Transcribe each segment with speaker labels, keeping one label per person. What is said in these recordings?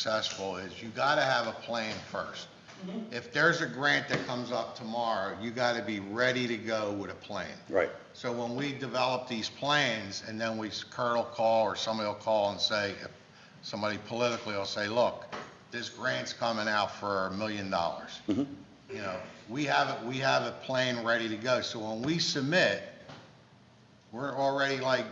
Speaker 1: successful is you gotta have a plan first. If there's a grant that comes up tomorrow, you gotta be ready to go with a plan.
Speaker 2: Right.
Speaker 1: So when we develop these plans, and then we, Kurt will call, or somebody will call and say, if somebody politically will say, look, this grant's coming out for a million dollars.
Speaker 2: Mm-hmm.
Speaker 1: You know, we have, it. we have a plan ready to go, so when we submit, we're already like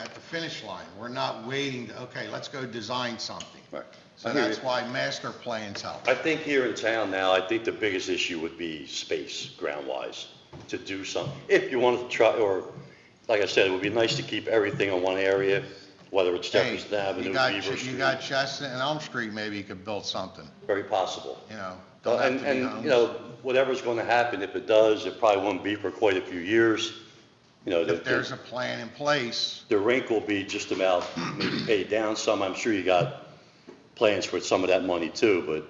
Speaker 1: at the finish line, we're not waiting to, okay, let's go design something.
Speaker 2: Right.
Speaker 1: So
Speaker 2: I hear
Speaker 1: that's
Speaker 2: you.
Speaker 1: why master plans help.
Speaker 2: I think here in town now, I think the biggest issue would be space, ground-wise, to do something. If you want to try, or, like I said, it would be nice to keep everything in one area, whether it's
Speaker 1: Hey,
Speaker 2: Jefferson Avenue,
Speaker 1: you got
Speaker 2: Beaver
Speaker 1: Ch- You
Speaker 2: Street,
Speaker 1: got Chestnut and Elm Street, maybe you could build something,
Speaker 2: very possible.
Speaker 1: you know? don't have
Speaker 2: And,
Speaker 1: to be
Speaker 2: and,
Speaker 1: homes.
Speaker 2: you know, whatever's going to happen, if it does, it probably won't be for quite a few years. You know, the-
Speaker 1: If there's a plan in place,
Speaker 2: the rink will be just about maybe paid down some. I'm sure you got plans for some of that money too, but,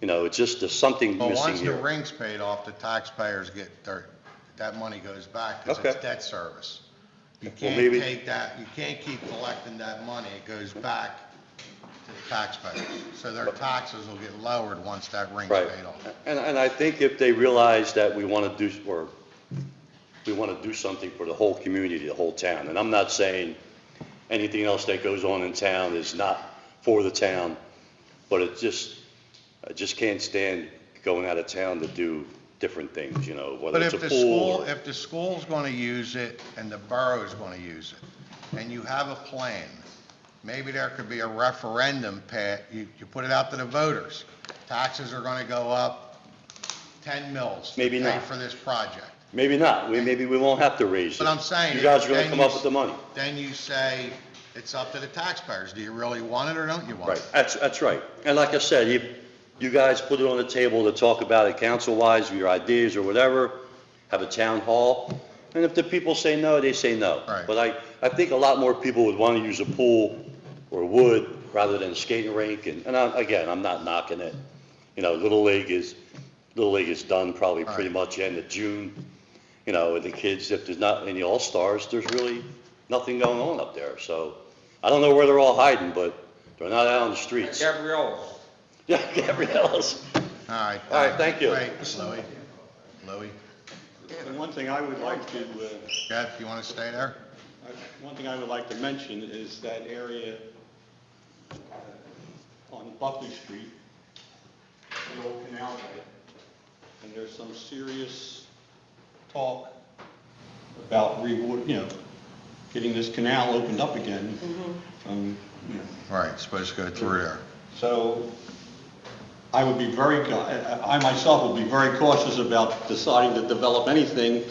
Speaker 2: you know, it's just, there's something
Speaker 1: but
Speaker 2: missing
Speaker 1: once the
Speaker 2: here.
Speaker 1: ring's paid off, the taxpayers get their, that money goes back because
Speaker 2: Okay.
Speaker 1: it's debt service. You
Speaker 2: Well,
Speaker 1: can't
Speaker 2: maybe-
Speaker 1: take that, you can't keep collecting that money, it goes back to the taxpayers. So their taxes will get lowered once that ring's
Speaker 2: Right.
Speaker 1: paid off.
Speaker 2: And, and I think if they realize that we want to do, or we want to do something for the whole community, the whole town, and I'm not saying anything else that goes on in town is not for the town, but it just, I just can't stand going out of town to do different things, you know, whether
Speaker 1: But
Speaker 2: it's a
Speaker 1: if the
Speaker 2: pool.
Speaker 1: school,
Speaker 2: or-
Speaker 1: if the school's going to use it and the borough's going to use it, and you have a plan, maybe there could be a referendum, Pat, you, you put it out to the voters. Taxes are going to go up 10 mils. to
Speaker 2: Maybe
Speaker 1: pay
Speaker 2: not.
Speaker 1: For this project.
Speaker 2: Maybe not, we, maybe we won't have to raise it.
Speaker 1: But I'm saying.
Speaker 2: You guys are
Speaker 1: then
Speaker 2: gonna come up
Speaker 1: you-
Speaker 2: with the money.
Speaker 1: Then you say, it's up to the taxpayers. Do you really want it or don't you want
Speaker 2: Right,
Speaker 1: it?
Speaker 2: that's, that's right. And like I said, you, you guys put it on the table to talk about it council-wise, your ideas or whatever, have a town hall, and if the people say no, they say no.
Speaker 1: Right.
Speaker 2: But I, I think a lot more people would wanna use a pool or wood rather than a skating rink, and, and I, again, I'm not knocking it. You know, Little League is, Little League is done probably pretty much end of June. You know, and the kids, if there's not any All-Stars, there's really nothing going on up there, so I don't know where they're all hiding, but they're not out on the streets.
Speaker 3: Gabrielle's.
Speaker 2: Yeah, Gabriella's.
Speaker 1: All right.
Speaker 2: All right, thank you.
Speaker 1: Wait, Louis, Louis,
Speaker 4: And one thing I would like to, uh,
Speaker 1: Jeff, you want to stay there?
Speaker 4: I- one thing I would like to mention is that area uh, on Buckley Street, the old canal there, and there's some serious talk about reward, you know, getting this canal opened up again from, you know,
Speaker 1: All right, supposed to go through there.
Speaker 4: so I would be very, ca- I I myself would be very cautious about deciding to develop anything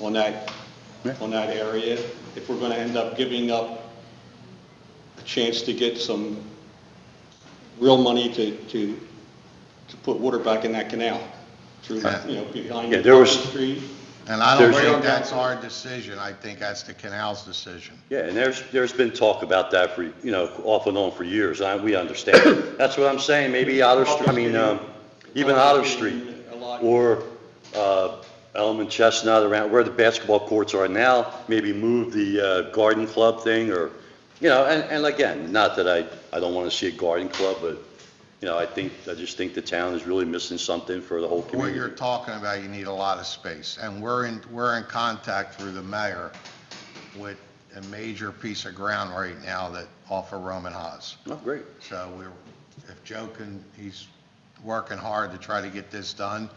Speaker 4: on that, on that area if we're going to end up giving up a chance to get some real money to, to, to put water back in that canal through, you know, behind
Speaker 2: Yeah, there
Speaker 4: the
Speaker 2: was-
Speaker 4: street.
Speaker 1: And I don't
Speaker 2: There's-
Speaker 1: think that's our decision, I think that's the canal's decision.
Speaker 2: Yeah, and there's, there's been talk about that for, you know, off and on for years, and I- we understand. That's what I'm saying, maybe Otter Street, I mean, um, even Otter Street, or uh, Elm and Chestnut around, where the basketball courts are now, maybe move the uh, garden club thing, or, you know, and, and again, not that I, I don't want to see a garden club, but, you know, I think, I just think the town is really missing something for the whole
Speaker 1: What you're
Speaker 2: community.
Speaker 1: talking about, you need a lot of space, and we're in, we're in contact through the mayor with a major piece of ground right now that, off of Roman Haas.
Speaker 2: Oh, great.
Speaker 1: So we're, if Joe can, he's working hard to try to get this done,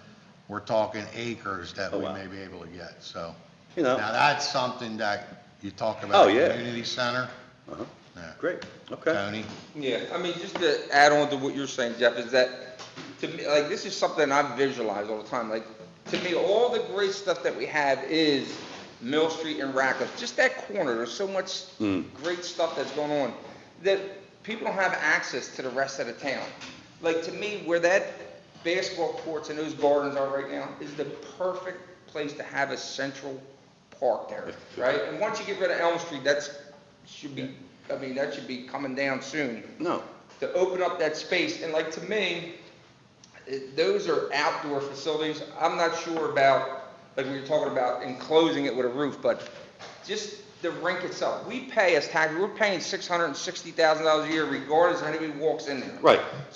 Speaker 1: we're talking acres that
Speaker 2: Oh,
Speaker 1: we
Speaker 2: wow.
Speaker 1: may be able to get, so.
Speaker 2: You know.
Speaker 1: Now, that's something that you talk about.
Speaker 2: Oh, yeah.
Speaker 1: Community center,
Speaker 2: Uh-huh.
Speaker 1: yeah.
Speaker 2: Great, okay.
Speaker 1: Tony?
Speaker 3: Yeah, I mean, just to add on to what you're saying, Jeff, is that, to me, like, this is something I visualize all the time, like, to me, all the great stuff that we have is Mill Street and Radcliffe, just that corner, there's so much
Speaker 2: Mm.
Speaker 3: great stuff that's going on, that people don't have access to the rest of the town. Like, to me, where that basketball courts and those gardens are right now is the perfect place to have a central park there, right? And once you get rid of Elm Street, that's, should be, I mean, that should be coming down soon
Speaker 2: No,
Speaker 3: to open up that space. And like to me, it- those are outdoor facilities. I'm not sure about, like we were talking about enclosing it with a roof, but just the rink itself. We pay as tax, we're paying six hundred and sixty thousand dollars a year regardless of anybody walks in there.
Speaker 2: Right.